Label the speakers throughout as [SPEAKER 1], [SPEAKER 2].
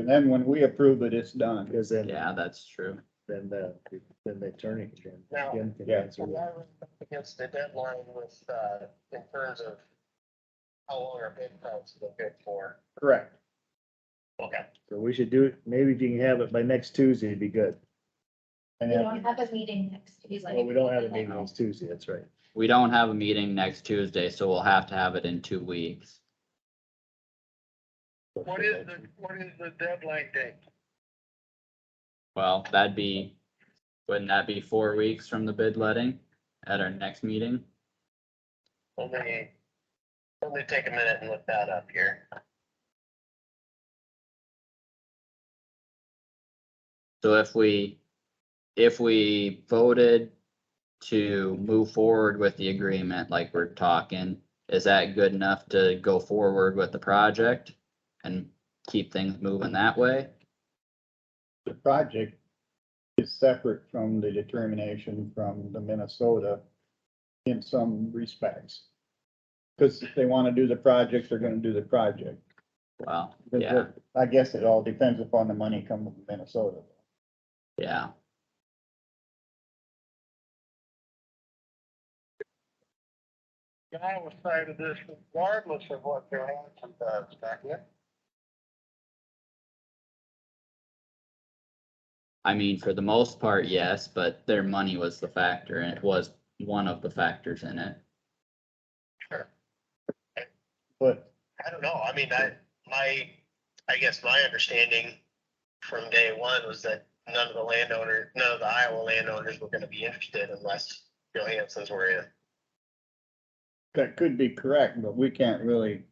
[SPEAKER 1] And then when we approve it, it's done.
[SPEAKER 2] Because then,
[SPEAKER 3] Yeah, that's true.
[SPEAKER 2] then the, then the attorney can.
[SPEAKER 4] Now-
[SPEAKER 2] can- can
[SPEAKER 1] Yeah.
[SPEAKER 2] answer
[SPEAKER 4] And
[SPEAKER 2] that.
[SPEAKER 4] that was up Against the deadline with, uh, in terms of how long our bid process is good for.
[SPEAKER 1] Correct.
[SPEAKER 4] Okay.
[SPEAKER 2] So we should do, it. maybe if you can have it by next Tuesday, it'd be good.
[SPEAKER 1] And
[SPEAKER 5] We
[SPEAKER 1] then,
[SPEAKER 5] don't have a meeting next Tuesday.
[SPEAKER 2] Well, we don't have a meeting next Tuesday, that's right.
[SPEAKER 3] We don't have a meeting next Tuesday, so we'll have to have it in two weeks.
[SPEAKER 4] What is the, what is the deadline date?
[SPEAKER 3] Well, that'd be, wouldn't that be four weeks from the bid letting at our next meeting?
[SPEAKER 4] Let me, let me take a minute and look that up here.
[SPEAKER 3] So if we, if we voted to move forward with the agreement like we're talking, is that good enough to go forward with the project and keep things moving that way?
[SPEAKER 1] the project is separate from the determination from the Minnesota in some respects. Because if they want to do the project, they're going to do the project.
[SPEAKER 3] Well,
[SPEAKER 1] But
[SPEAKER 3] yeah,
[SPEAKER 1] I guess it all depends upon the money coming from Minnesota.
[SPEAKER 3] yeah.
[SPEAKER 4] The Iowa side of this, regardless of what their answer does, back it.
[SPEAKER 3] I mean, for the most part, yes, but their money was the factor and it was one of the factors in it.
[SPEAKER 1] But
[SPEAKER 4] I don't know. I mean, I, my, I guess my understanding from day one was that none of the landowners, none of the Iowa landowners were gonna be interested unless Johansson's were in.
[SPEAKER 1] that could be correct, but we can't really,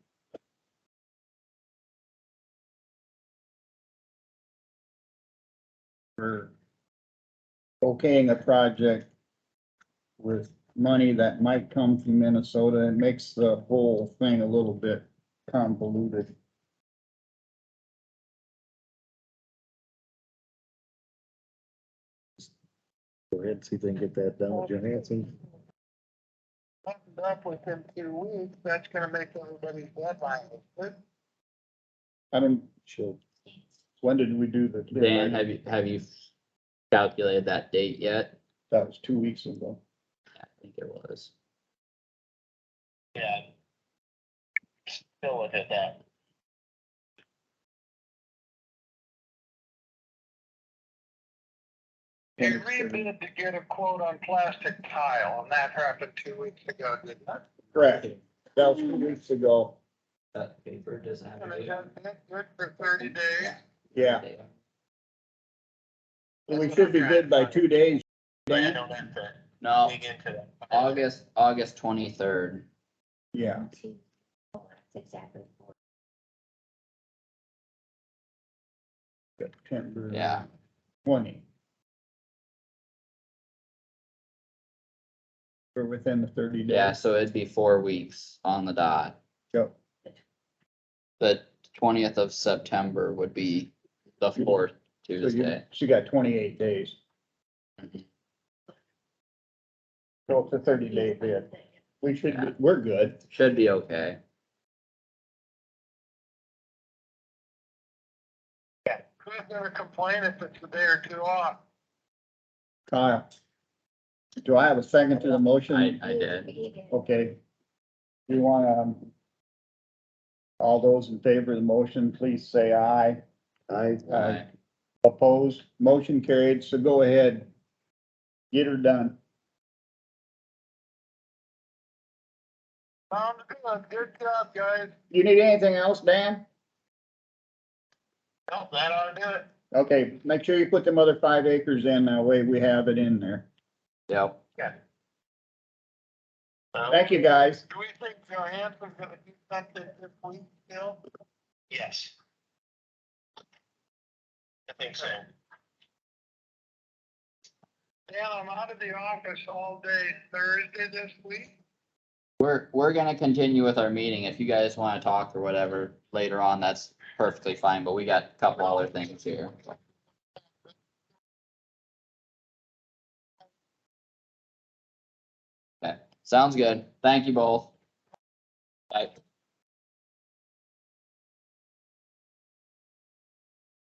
[SPEAKER 2] Or
[SPEAKER 1] okaying a project with money that might come from Minnesota, it makes the whole thing a little bit convoluted.
[SPEAKER 2] Go ahead, see if they can get that done with Johansson.
[SPEAKER 4] Buttoned up within two weeks, that's gonna make everybody's deadline.
[SPEAKER 1] I don't,
[SPEAKER 2] Sure.
[SPEAKER 1] when did we do the?
[SPEAKER 3] Dan, have you, have you calculated that date yet?
[SPEAKER 1] That was two weeks ago.
[SPEAKER 3] I think it was.
[SPEAKER 4] Yeah. Still look at that.
[SPEAKER 1] And
[SPEAKER 4] You
[SPEAKER 1] it's-
[SPEAKER 4] rebid to get a quote on plastic tile, and that happened two weeks ago, didn't it?
[SPEAKER 1] Correct. That was two weeks ago.
[SPEAKER 3] That paper doesn't have.
[SPEAKER 4] And it hasn't been good for thirty days.
[SPEAKER 1] Yeah, we should be good by two days.
[SPEAKER 4] But you
[SPEAKER 1] Dan?
[SPEAKER 4] don't have to
[SPEAKER 3] No,
[SPEAKER 4] dig into that.
[SPEAKER 3] August, August twenty-third.
[SPEAKER 1] Yeah,
[SPEAKER 5] Two, four, that's Exactly. four.
[SPEAKER 1] September.
[SPEAKER 3] Yeah,
[SPEAKER 1] Twenty. We're within the thirty days.
[SPEAKER 3] yeah, so it'd be four weeks on the dot.
[SPEAKER 1] Yep.
[SPEAKER 3] The twentieth of September would be the fourth
[SPEAKER 1] So you,
[SPEAKER 3] Tuesday.
[SPEAKER 1] she got twenty-eight days. So it's a thirty-day bid. We should, be- we're good.
[SPEAKER 3] Should be okay.
[SPEAKER 4] Who's gonna complain if it's a day or two off?
[SPEAKER 1] Kyle. Do I have a second to the motion?
[SPEAKER 3] I, I did.
[SPEAKER 1] Okay. You want, um, all those in favor of the motion, please say aye.
[SPEAKER 2] I,
[SPEAKER 1] Aye. Opposed, motion carried, so go ahead. Get her done.
[SPEAKER 4] Sounds good. Good job, guys.
[SPEAKER 1] You need anything else, Dan?
[SPEAKER 4] Nope, that ought to do it.
[SPEAKER 1] Okay, make sure you put them other five acres in, that way we have it in there.
[SPEAKER 3] Yep,
[SPEAKER 4] Um,
[SPEAKER 1] Thank you, guys.
[SPEAKER 4] Do we think Johansson's gonna do something this week still? Yes. I think so. Dan, I'm out of the office all day Thursday this week.
[SPEAKER 3] we're, we're gonna continue with our meeting. If you guys wanna talk or whatever later on, that's perfectly fine, but we got a couple other things here. Okay, sounds good. Thank you both. Bye.